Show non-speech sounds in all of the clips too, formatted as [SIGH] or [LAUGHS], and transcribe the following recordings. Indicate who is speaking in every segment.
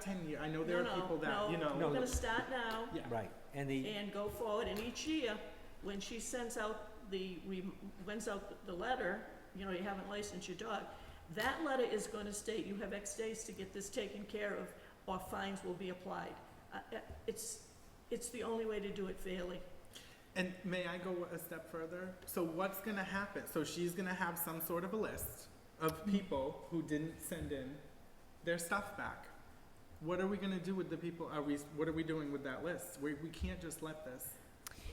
Speaker 1: ten year, I know there
Speaker 2: No,
Speaker 1: are
Speaker 2: no,
Speaker 1: people that,
Speaker 2: no,
Speaker 1: you
Speaker 2: We're
Speaker 1: know,
Speaker 2: gonna start now
Speaker 1: yeah,
Speaker 3: Right, and the,
Speaker 2: and go forward, and each year, when she sends out the, rem- sends out the letter, you know, you haven't licensed your dog, that letter is gonna state, you have X days to get this taken care of, or fines will be applied. Uh, uh, It's, it's the only way to do it fairly.
Speaker 1: And may I go a step further? So what's gonna happen? So she's gonna have some sort of a list of
Speaker 4: Mm-hmm.
Speaker 1: people who didn't send in their stuff back. What are we gonna do with the people? Are we, what are we doing with that list? We, we can't just let this.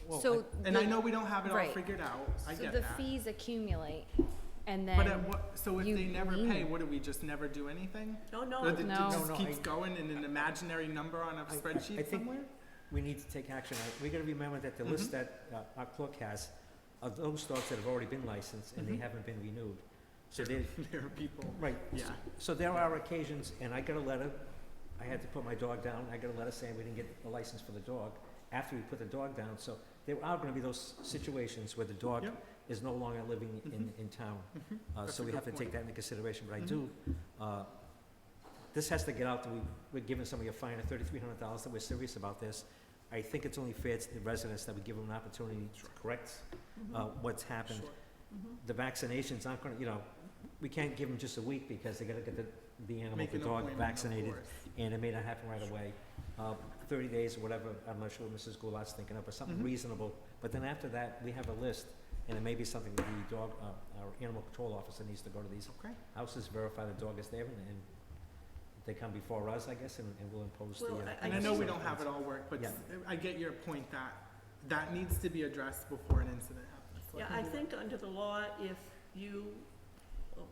Speaker 3: well,
Speaker 4: So.
Speaker 1: And I
Speaker 4: the-
Speaker 1: know we don't have it all
Speaker 4: Right.
Speaker 1: figured out. I
Speaker 4: So
Speaker 1: get
Speaker 4: the
Speaker 1: that.
Speaker 4: fees accumulate and
Speaker 1: But at
Speaker 4: then,
Speaker 1: what, so if
Speaker 4: you
Speaker 1: they never
Speaker 4: lean.
Speaker 1: pay, what do we just never do anything?
Speaker 2: No,
Speaker 1: Or the-
Speaker 2: no,
Speaker 1: It
Speaker 4: No.
Speaker 1: just
Speaker 3: No, no,
Speaker 1: keeps
Speaker 3: I-
Speaker 1: going in an imaginary number on a
Speaker 3: I- I- I
Speaker 1: spreadsheet
Speaker 3: think-
Speaker 1: somewhere? Mm-hmm.
Speaker 3: we need to take action. I- We gotta remember that the list that uh, our clerk has are those dogs that have already been licensed and they
Speaker 1: Mhm.
Speaker 3: haven't been renewed. So they,
Speaker 1: [LAUGHS] There are people,
Speaker 3: right,
Speaker 1: yeah.
Speaker 3: so there are occasions, and I got a letter, I had to put my dog down, I got a letter saying we didn't get the license for the dog, after we put the dog down, so there are gonna be those situations where the dog
Speaker 1: Yep.
Speaker 3: is no longer living in, in town.
Speaker 1: Mhm.
Speaker 3: Uh,
Speaker 1: That's
Speaker 3: so
Speaker 1: a
Speaker 3: we
Speaker 1: good
Speaker 3: have to take
Speaker 1: point.
Speaker 3: that into consideration, but I
Speaker 1: Mhm.
Speaker 3: do, uh, this has to get out, that we, we're giving somebody a fine of thirty-three hundred dollars, that we're serious about this. I think it's only fair to the residents that we give them an opportunity to
Speaker 1: Sure. Mm-hmm.
Speaker 3: correct,
Speaker 2: Mm-hmm.
Speaker 3: uh, what's happened.
Speaker 1: Sure.
Speaker 2: Mhm.
Speaker 3: The vaccinations aren't gonna, you know, we can't give them just a week because they gotta get the, the animal,
Speaker 1: Make
Speaker 3: the
Speaker 1: an
Speaker 3: dog
Speaker 1: appointment, of
Speaker 3: vaccinated,
Speaker 1: course.
Speaker 3: and it may not happen right away. Uh, thirty days or whatever, I'm not sure what Mrs. Goulart's thinking of, but something
Speaker 1: Mhm.
Speaker 3: reasonable. But then after that, we have a list, and it may be something that the dog, uh, our animal control officer needs to go to these
Speaker 1: Okay.
Speaker 3: houses, verify the dog is there, and, and they come before us, I guess, and, and we'll impose the.
Speaker 2: Well,
Speaker 3: uh,
Speaker 2: I- I
Speaker 1: And I know we
Speaker 2: just-
Speaker 1: don't have it all worked, but
Speaker 3: Yeah.
Speaker 1: I get your point that that needs to be addressed before an incident happens. Like,
Speaker 2: Yeah, I think under the law, if you,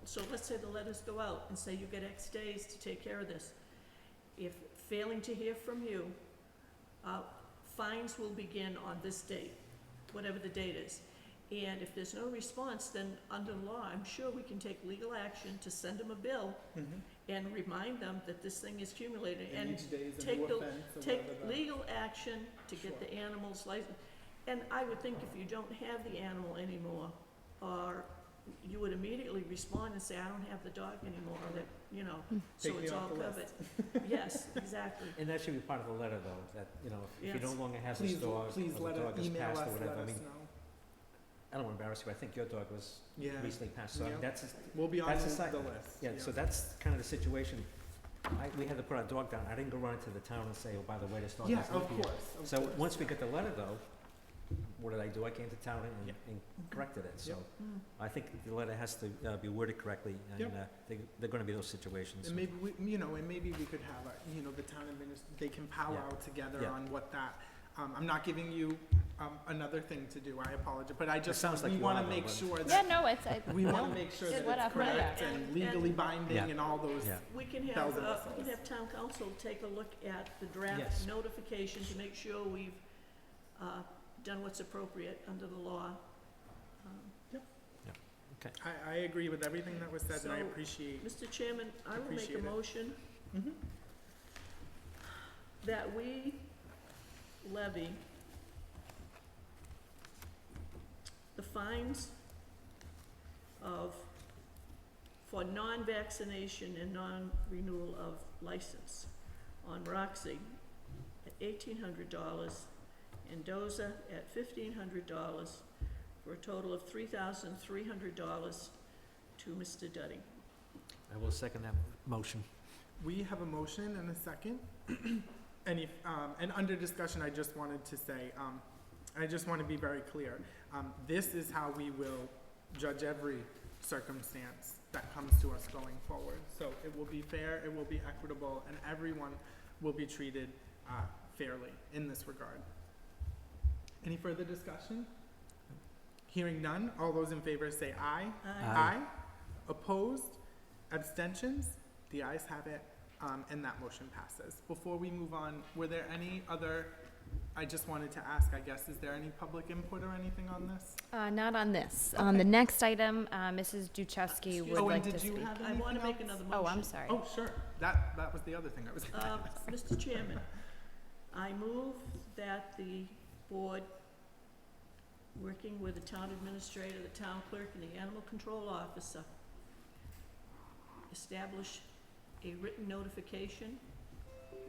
Speaker 2: so let's say the letters go out and say you get X days to take care of this. If failing to hear from you, uh, fines will begin on this date, whatever the date is. And if there's no response, then under law, I'm sure we can take legal action to send them a bill
Speaker 1: Mhm.
Speaker 2: and remind them that this thing is accumulating
Speaker 1: And
Speaker 2: and
Speaker 1: each day is a
Speaker 2: take
Speaker 1: new
Speaker 2: the-
Speaker 1: offense or
Speaker 2: take
Speaker 1: whatever the-
Speaker 2: legal action to get the animal's license. And I would think if you don't have the animal anymore, or you would immediately respond and say, I don't have the dog anymore, or that, you know, so
Speaker 1: Take me
Speaker 2: it's
Speaker 1: off
Speaker 2: all
Speaker 1: the
Speaker 2: covered. [LAUGHS] Yes, exactly.
Speaker 3: And that should be part of the letter, though, that, you know, if you no
Speaker 2: Yes.
Speaker 3: longer have this
Speaker 1: Please,
Speaker 3: dog, or the
Speaker 1: please let
Speaker 3: dog
Speaker 1: us,
Speaker 3: is
Speaker 1: email us,
Speaker 3: passed or
Speaker 1: let
Speaker 3: whatever, I
Speaker 1: us
Speaker 3: mean,
Speaker 1: know.
Speaker 3: I don't wanna embarrass you, I think your dog was
Speaker 1: Yeah,
Speaker 3: recently passed, so I mean,
Speaker 1: Yeah.
Speaker 3: that's, a-
Speaker 1: we'll be on
Speaker 3: That's
Speaker 1: the
Speaker 3: a side-
Speaker 1: the list.
Speaker 3: Yeah, so that's kind of the situation. I, we had to put our dog down. I didn't go run into the town and say, oh, by the way, this dog
Speaker 1: Yeah,
Speaker 3: has
Speaker 1: of
Speaker 3: leave here.
Speaker 1: course, of
Speaker 3: So
Speaker 1: course.
Speaker 3: once we got the letter though, what did I do? I came to town and,
Speaker 1: Yeah.
Speaker 3: and corrected it, so.
Speaker 2: Mm.
Speaker 3: I think the letter has to uh, be worded correctly
Speaker 1: Yep.
Speaker 3: and, uh, they, they're gonna be those situations.
Speaker 1: And maybe we, you know, and maybe we could have, a you know, the town administr, they can powwow together
Speaker 3: Yeah.
Speaker 1: on what that, um, I'm not giving you, um, another thing to do, I apologize, but I just,
Speaker 3: sounds like
Speaker 1: we
Speaker 3: you
Speaker 1: wanna
Speaker 3: are, though,
Speaker 1: make
Speaker 3: but-
Speaker 1: sure
Speaker 4: yeah,
Speaker 1: that,
Speaker 4: no, it's, I-
Speaker 1: we wanna
Speaker 4: no.
Speaker 1: make sure
Speaker 4: It's
Speaker 1: that
Speaker 4: what
Speaker 1: it's
Speaker 4: I've read.
Speaker 1: correct and
Speaker 2: And-
Speaker 1: legally
Speaker 2: and-
Speaker 1: binding
Speaker 3: Yeah.
Speaker 1: and all those
Speaker 3: Yeah.
Speaker 2: We can have,
Speaker 1: Thousand
Speaker 2: uh,
Speaker 1: whistles.
Speaker 2: we can have town council take a look at the
Speaker 3: Yes.
Speaker 2: draft notification to make sure we've, uh, done what's appropriate under the law. Um,
Speaker 1: I, I agree with everything that was said, and I
Speaker 2: So-
Speaker 1: appreciate.
Speaker 2: Mr. Chairman, I will make
Speaker 1: Appreciate
Speaker 2: a
Speaker 1: it.
Speaker 2: motion
Speaker 1: Mhm.
Speaker 2: that we levy the fines of, for non-vaccination and non-renewal of license on Roxy at eighteen hundred dollars and Doza at fifteen hundred dollars for a total of three thousand three hundred dollars to Mr. Duddy.
Speaker 3: I will second that motion.
Speaker 1: We have a motion and a second. [CLEARS THROAT] And if, um, and under discussion, I just wanted to say, um, I just want to be very clear. Um, this is how we will judge every circumstance that comes to us going forward. So it will be fair, it will be equitable, and everyone will be treated, uh, fairly in this regard. Any further discussion? Hearing none, all those in favor say aye.
Speaker 3: Aye.
Speaker 1: Aye. Opposed? Abstentions? The ayes have it, um, and that motion passes. Before we move on, were there any other, I just wanted to ask, I guess, is there any public input or anything on this?
Speaker 4: Uh, not on this. On the next item, uh, Mrs. Duchesky
Speaker 2: Excuse-
Speaker 4: would
Speaker 1: Oh, and
Speaker 4: like to
Speaker 1: did you
Speaker 4: speak.
Speaker 1: have
Speaker 2: I
Speaker 1: anything
Speaker 2: want to make
Speaker 1: else?
Speaker 2: another motion.
Speaker 4: Oh, I'm sorry.
Speaker 1: Oh, sure. That, that was the other thing I was gonna
Speaker 2: Uh,
Speaker 1: ask.
Speaker 2: Mr. Chairman, I move that the board, working with the town administrator, the town clerk, and the animal control officer, establish a written notification